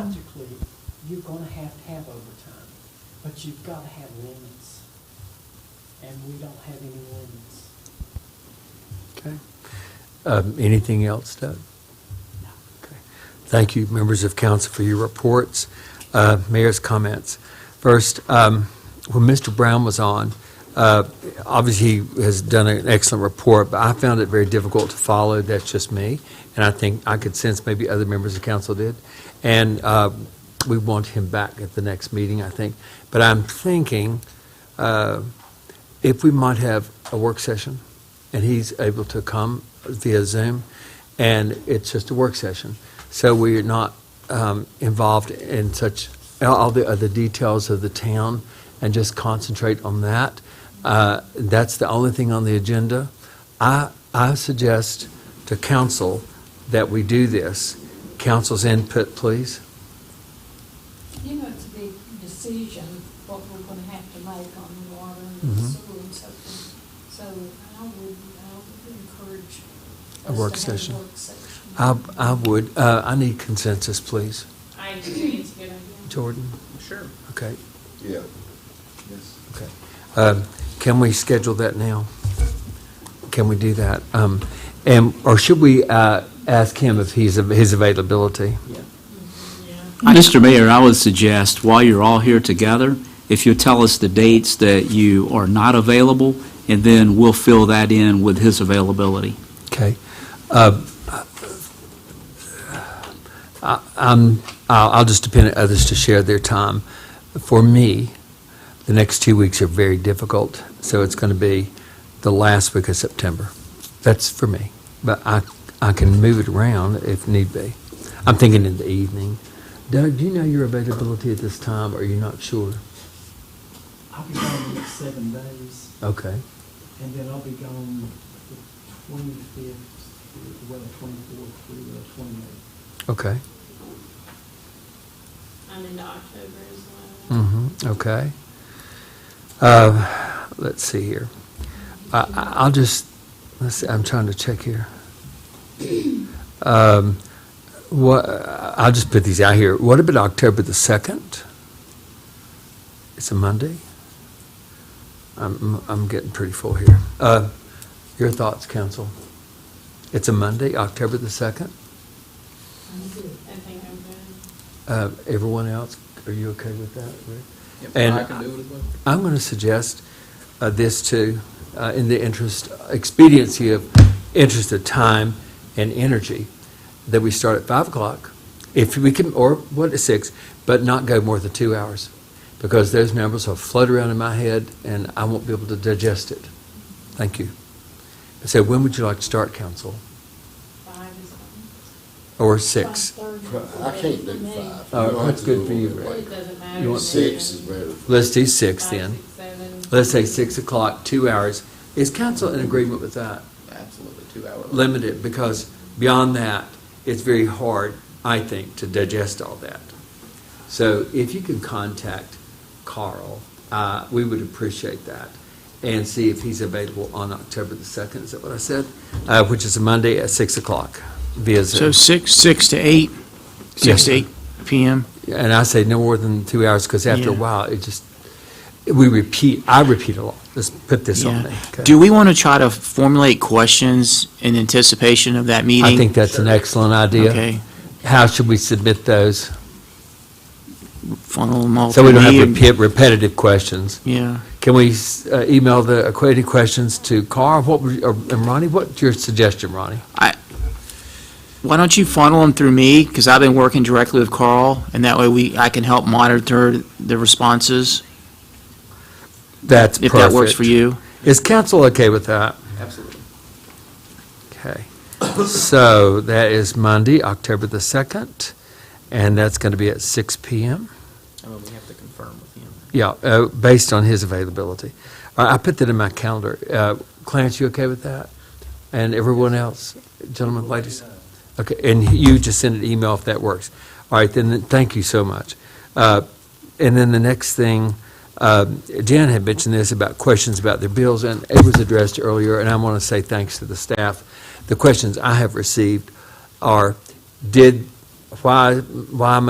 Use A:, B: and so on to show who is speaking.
A: logically, you're gonna have to have overtime, but you've gotta have limits. And we don't have any limits.
B: Okay. Um, Anything else, Doug? Okay. Thank you, members of council, for your reports. Uh, Mayor's comments. First, um, when Mr. Brown was on, uh, obviously, he has done an excellent report, but I found it very difficult to follow. That's just me. And I think I could sense maybe other members of council did. And uh, we want him back at the next meeting, I think. But I'm thinking uh, if we might have a work session, and he's able to come via Zoom, and it's just a work session. So we're not um, involved in such, all the other details of the town, and just concentrate on that. Uh, That's the only thing on the agenda. I, I suggest to council that we do this. Council's input, please.
C: You know, it's a big decision, what we're gonna have to make on the water and the
B: Mhm.
C: sewer and so forth. So I would, I would encourage us
B: A
C: to have a
B: work
C: work
B: session.
C: session.
B: I, I would, uh, I need consensus, please.
D: I agree, it's a good idea.
B: Jordan?
E: Sure.
B: Okay,
F: Yeah. Yes.
B: okay. Um, Can we schedule that now? Can we do that? Um, And, or should we uh, ask him if he's, av- his availability?
G: Mr. Mayor, I would suggest, while you're all here together, if you tell us the dates that you are not available, and then we'll fill that in with his availability.
B: Okay. Uh, I- I'm- I'll I'll just depend on others to share their time. For me, the next two weeks are very difficult, so it's going to be the last week of September. That's for me, but I I can move it around if need be. I'm thinking in the evening. Doug, do you know your availability at this time, or are you not sure?
A: I'll be gone the next seven days,
B: Okay,
A: and then I'll be gone the twenty-fifth, well, twenty-fourth through the twenty-eighth.
B: okay.
D: I'm into October as well.
B: hmm okay. Uh, let's see here. I, I- I'll just, let's see, I'm trying to check here. Um, what, I'll just put these out here. What about October the 2nd? It's a Monday? I'm, I'm getting pretty full here. Uh, your thoughts, council? It's a Monday, October the 2nd?
D: I think I'm good.
B: Uh, everyone else, are you okay with that, Rick?
E: And
B: And
E: I can do it as well.
B: I'm going to suggest uh, this too, uh, in the interest, expediency of, interest of time and energy, that we start at 5 o'clock, if we can, or what, at 6, but not go more than two hours, because those numbers will float around in my head, and I won't be able to digest it. Thank you. So when would you like to start, council?
D: Five is fine.
B: Or 6?
F: I can't do five.
B: Uh,
F: You'll have
B: that's
F: to
B: good
F: do
B: for
F: a
B: you,
F: little
B: Rick.
D: It
F: bit
D: doesn't
B: You
D: matter.
F: later.
B: want-
F: Six is better.
B: Let's do 6
D: Five,
B: then.
D: six, seven.
B: Let's say 6 o'clock, two hours. Is council in agreement with that?
E: Absolutely, two hour.
B: limit it, because beyond that, it's very hard, I think, to digest all that. So if you can contact Carl, uh, we would appreciate that, and see if he's available on October the 2nd, is that what I said? Uh, Which is a Monday at 6 o'clock via
H: So
B: Zoom.
H: six, six to eight, six to
B: Yeah.
H: eight PM.
B: And I say no more than two hours, because after a
H: Yeah.
B: while, it just, we repeat, I repeat a lot. Let's put this on
H: Yeah.
B: there. okay?
H: Do we want to try to formulate questions in anticipation of that meeting?
B: I think that's an excellent idea.
H: Okay,
B: How should we submit those?
H: funnel them all.
B: So we
H: through
B: don't have
H: me.
B: repeat- repetitive questions.
H: Yeah,
B: Can we uh, email the equated questions to Carl? What, would- or- and Ronnie, what's your suggestion, Ronnie?
H: why don't you funnel them through me, because I've been working directly with Carl, and that way we, I can help monitor the responses,
B: That's
H: if
B: perfect.
H: that works for you.
B: Is council okay with that?
E: Absolutely.
B: Okay. So that is Monday, October the 2nd, and that's going to be at six PM.
E: Oh, we have to confirm with him.
B: Yeah, uh, based on his availability. I I put that in my calendar. Uh, Clarence, you okay with that? And everyone else, gentlemen, ladies? Okay, and you just send an email if that works. All right, then, thank you so much. Uh, And then the next thing, um, Jan had mentioned this about questions about their bills, and it was addressed earlier, and I want to say thanks to the staff. The questions I have received are, did, why, why am I